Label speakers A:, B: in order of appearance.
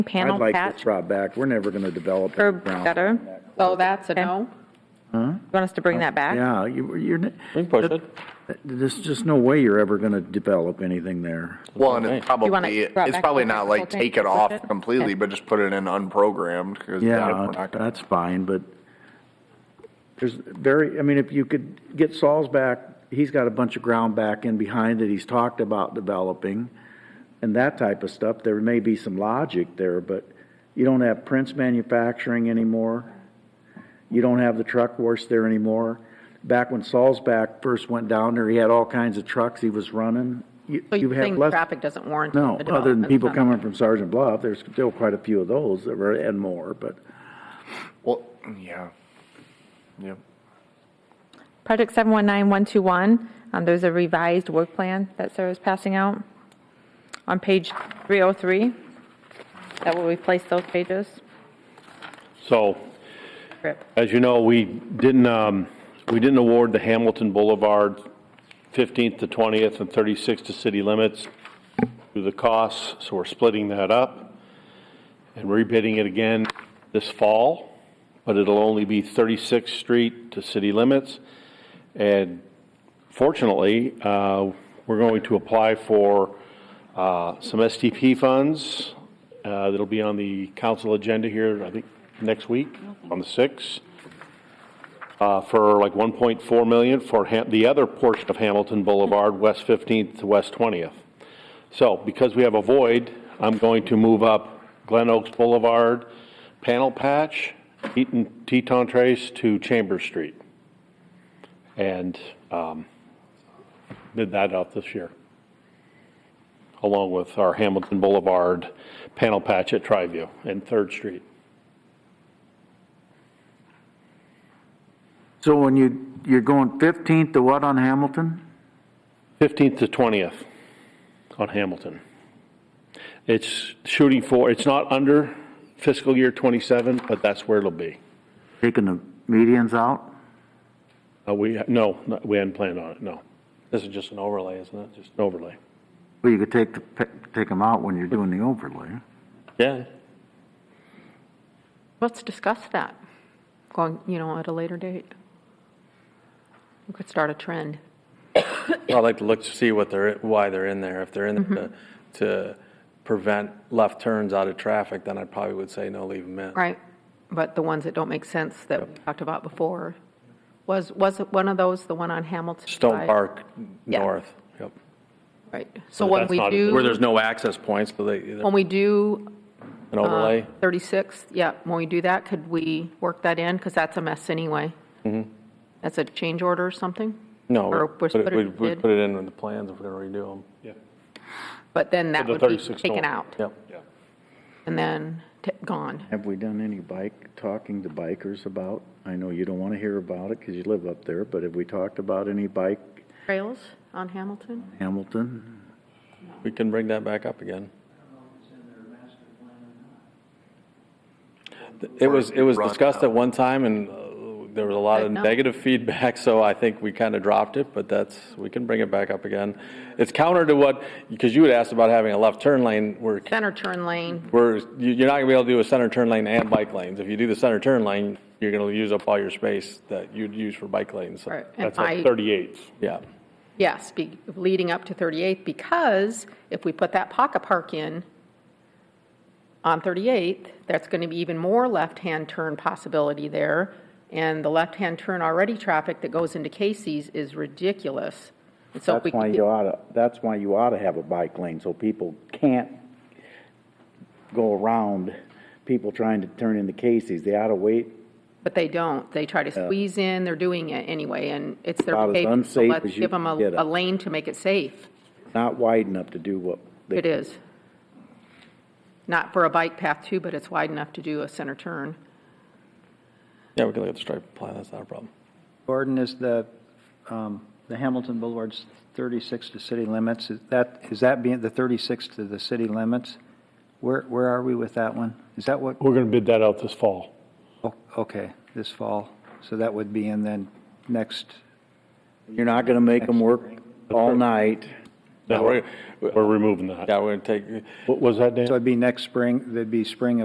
A: Panel
B: I'd like this
A: patch,
B: brought back. We're never going to develop.
A: or
B: any ground.
A: better?
C: Oh, that's a no?
A: You want us to bring that back?
B: Yeah, you, you're, n-
D: We can push it.
B: there's just no way you're ever going to develop anything there.
E: Well, and it's
D: Okay.
A: You wanna
E: probably,
A: drop
E: it's
A: back
E: probably
A: to
E: not
A: the
E: like
A: consultant?
E: take it off
A: Okay.
E: completely, but just put it in unprogrammed. 'cause we're
B: Yeah,
E: not gonna-
B: that's fine, but there's very, I mean, if you could get Saul's back, he's got a bunch of ground back in behind that he's talked about developing and that type of stuff. There may be some logic there, but you don't have Prince Manufacturing anymore. You don't have the truck wash there anymore. Back when Saul's back first went down there, he had all kinds of trucks he was running. You
C: So
B: you
C: you're
B: have
C: saying
B: less-
C: traffic doesn't warrant?
B: No,
C: the
B: other than
C: development,
B: people
C: so-
B: coming from Sergeant Bluff, there's still quite a few of those that were, and more, but.
E: Well, yeah. Yep.
A: Project 719121, um, there's a revised work plan that Sarah's passing out on page 303. That will replace those pages.
D: So,
A: Rip.
D: as you know, we didn't, um, we didn't award the Hamilton Boulevard 15th to 20th and 36th to city limits through the costs, so we're splitting that up and rebidding it again this fall, but it'll only be 36th Street to city limits. And fortunately, uh, we're going to apply for uh, some STP funds uh, that'll be on the council agenda here, I think, next week, on the 6th, uh, for like 1.4 million for Ha- the other portion of Hamilton Boulevard, West 15th to West 20th. So because we have a void, I'm going to move up Glen Oaks Boulevard, Panel Patch, Eaton Teton Trace to Chambers Street. And um, bid that out this year, along with our Hamilton Boulevard panel patch at Triview and Third Street.
B: So when you, you're going 15th to what on Hamilton?
D: 15th to 20th on Hamilton. It's shooting for, it's not under fiscal year 27, but that's where it'll be.
B: Taking the medians out?
D: Uh, We, no, no, we hadn't planned on it, no. This is just an overlay, isn't it? Just an overlay.
B: Well, you could take, the pe- take them out when you're doing the overlay.
D: Yeah.
C: Let's discuss that, going, you know, at a later date. We could start a trend.
F: I'd like to look to see what they're, why they're in there. If they're in there to- to prevent left turns out of traffic, then I probably would say no, leave them in.
C: Right, but the ones that don't make sense that we talked about before, was, was it one of those, the one on Hamilton?
F: Stone
C: Drive?
F: Park
C: Yeah.
F: north, yep.
C: Right, so when
D: that's
C: we
D: not-
F: Where
C: do,
F: there's no access points, so they,
C: when
F: an
C: we do uh,
F: overlay.
C: 36, yeah, when we do that, could we work that in? Because that's a mess anyway.
D: Mm-hmm.
C: That's a change order or something?
F: No,
C: Or
F: we'd
C: was
F: put
C: put
F: it, we'd-
C: it
F: we'd
C: did?
F: put it in with the plans if we're going to redo them.
D: Yeah.
C: But then that
D: the
C: would be
D: 36 don't.
C: taken out
F: Yep.
C: and then t- gone.
B: Have we done any bike, talking to bikers about? I know you don't want to hear about it because you live up there, but have we talked about any bike
C: Trails on Hamilton?
B: Hamilton?
F: We can bring that back up again. It was, it was
E: Run
F: discussed
E: out.
F: at one time and uh, there was a lot of
C: Said no.
F: negative feedback, so I think we kind of dropped it, but that's, we can bring it back up again. It's counter to what, because you had asked about having a left turn lane, we're,
C: Center turn lane,
F: we're, you- you're not gonna be able to do a center turn lane and bike lanes. If you do the center turn lane, you're gonna use up all your space that you'd use for bike lanes, so,
C: or- and
D: That's at
C: I,
D: 38th.
F: yeah.
C: yes, be- leading up to 38th, because if we put that pocket park in on 38th, that's going to be even more left-hand turn possibility there, and the left-hand turn already traffic that goes into Casey's is ridiculous. And So if
B: That's
C: we
B: why
C: could
B: you ought to, that's why you ought to have a bike lane so people can't go around people trying to turn into Casey's. They ought to wait
C: But they don't. They try to squeeze in, they're doing it anyway, and it's their
B: About as
C: behavior. So
B: unsafe
C: let's
B: as you
C: give them a,
B: can get it.
C: a lane to make it safe.
B: not wide enough to do what they
C: It is. Not for a bike path too, but it's wide enough to do a center turn.
F: Yeah, we can look at the stripe plan, that's not a problem.
G: Gordon, is the, um, the Hamilton Boulevard's 36 to city limits, is that, is that being the 36 to the city limits? Where, where are we with that one? Is that what,
D: We're going to bid that out this fall.
G: oh, okay, this fall, so that would be in then next,
B: You're not gonna make them work all night.
F: No, we're,
D: We're removing that.
F: yeah, we're gonna take,
D: What was that, Dan?
G: So it'd be next spring, that'd be spring of